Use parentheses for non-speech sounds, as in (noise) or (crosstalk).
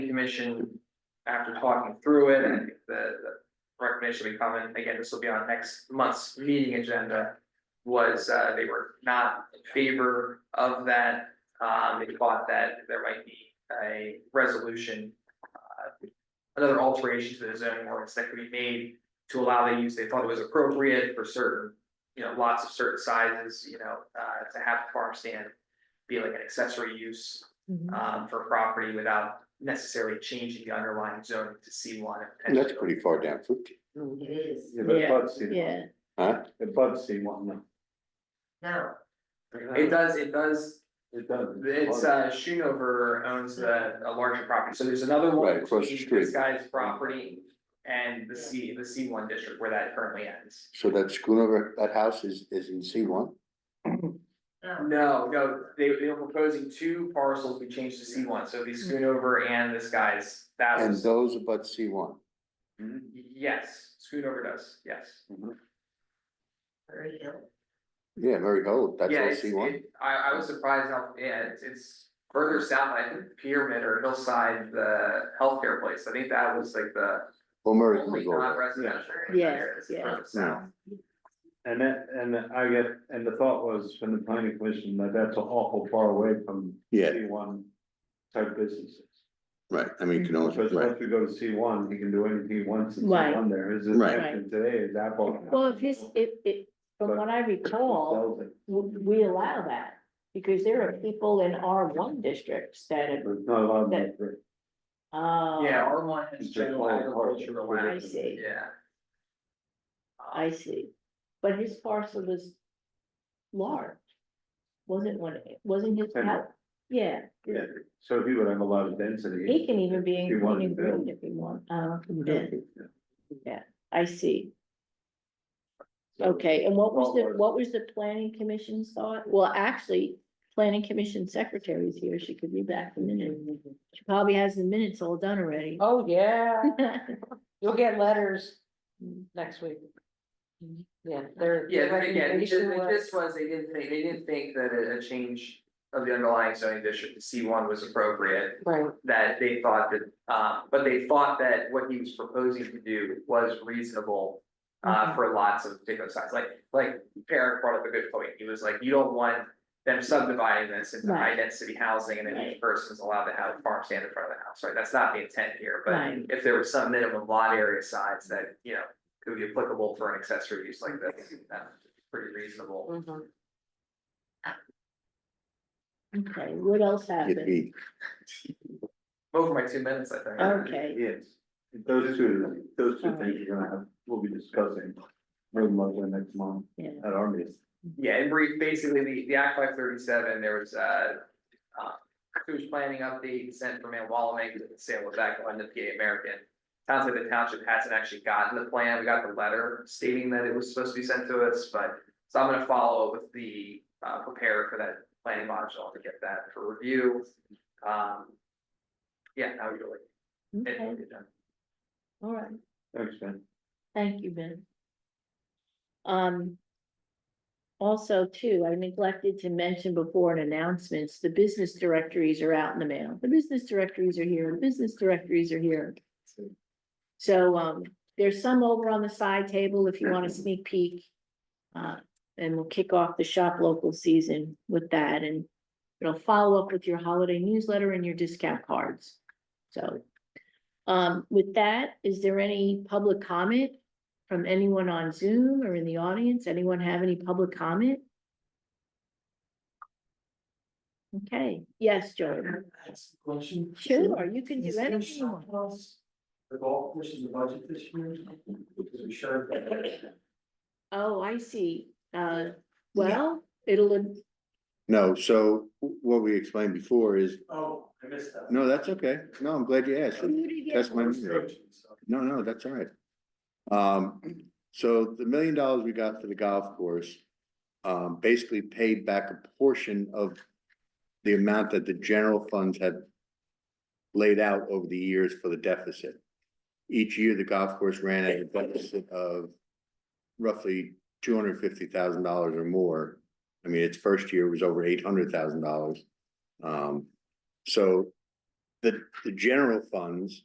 commission, after talking through it, I think the, the recommendation we come in, again, this will be on next month's meeting agenda. Was, uh, they were not in favor of that, um, they thought that there might be a resolution. uh, Another alteration to the zoning ordinance that could be made to allow the use, they thought it was appropriate for certain, you know, lots of certain sizes, you know, uh, to have a farm stand. Be like an accessory use um, for property without necessarily changing the underlying zone to C one. That's pretty far down, Fruit- It is, Yeah, but it Yeah. bugs C one, Yeah, huh? it bugs C one, no. no, It does, it does, It does. it's uh Schoonover owns the a larger property, so there's another Right, one across the between street. this guy's property. And the C, the C one district where that currently ends. So that Schoonover, that house is, is in C one? no, No, no, they they were proposing two parcels we changed to C one, so it'd be Schoonover and this guy's, that And was, those abut C one. yes, Schoonover does, yes. Prairie Hill. Yeah, Mary Hill, that's Yeah, all it's, C one. it, I, I was surprised how, yeah, it's, it's further south, I think Pyramid or Hillside, the healthcare place, I think that was like the Well, Mary only Hill's all that. non-residential. in that Yeah. area that's Yeah, further south. And that, and I get, and the thought was from the planning commission that that's awful far away from Yeah, C one type businesses. right, I mean, you can only, Because right, once we go to C one, he can do anything he wants in C Right. one there, his Right. intention today is Apple. well, if his, if, if, from what I recall, Sells it, w- we allow that. Because there are people in R one districts that but have, it's not allowed in That- the- oh. Yeah, our one It's has just general all part of agriculture it. allowed, I see. yeah. I see, but his parcel was large. Wasn't one, wasn't his, And- house- yeah, Yeah, so he would have a lot of density. he can even be He wanted in to build. Green if he want, uh, then, I see. So- Okay, and what was the, Well, what was the planning commission's thought? Well, actually, planning commission secretary is here, she could read back the minute. She probably has the minutes all done already. (laughs) Oh, yeah, you'll get letters next week. Mm-hmm. Yeah, they're. Yeah, but again, this- this was, they didn't think, they didn't think that a, a change of the underlying zoning district to C one was appropriate. Right, that they thought that, uh, but they thought that what he was proposing to do was reasonable. Uh, for lots of different sizes, like, like Eric brought up a good point, he was like, you don't want them subdividing this into Right. high density housing and then each Right. person's allowed to have a farm stand in front of the house, right, that's not the intent here, Right. but if there was some minimum lot area size that, you know, could be applicable for an accessory use like this, that's pretty reasonable. mhm. Okay, what else it'd happened? be, Over my two minutes, I think. Okay, Yes, those two, those two things you're gonna have, we'll be discussing. Very much in next month yeah, at our meeting. Yeah, in brief, basically, the, the Act five thirty-seven, there was, uh, uh, sewage planning update sent from Ann Wallamak to the sale of that one to PA American. Sounds like the township hasn't actually gotten the plan, we got the letter stating that it was supposed to be sent to us, but, so I'm gonna follow up with the, uh, preparer for that planning module to get that for review. Um, yeah, that would really, okay, it would be done. all right, Thanks, Ben. thank you, Ben. Um. Also too, I neglected to mention before in announcements, the business directories are out in the mail. The business directories are here, the business directories are here. So um, there's some over on the side table if you want a sneak peek. Uh, and we'll kick off the shop local season with that and it'll follow up with your holiday newsletter and your discount cards. So um, with that, is there any public comment from anyone on Zoom or in the audience? Anyone have any public comment? Okay, yes, Joan. That's a question. Sure, you can Is do there anything you want. something else? The golf course in the budget this year, because we showed that. Oh, I see. Uh, well, it'll, no, so what we explained before is, Oh, I missed that. no, that's okay, no, I'm glad you asked. That's my, Restrictions, so. no, no, that's all right. Um, so the million dollars we got for the golf course, um, basically paid back a portion of the amount that the general funds have laid out over the years for the deficit. Each year, the golf course ran at a deficit of roughly two hundred fifty thousand dollars or more. I mean, its first year was over eight hundred thousand dollars. Um, so the, the general funds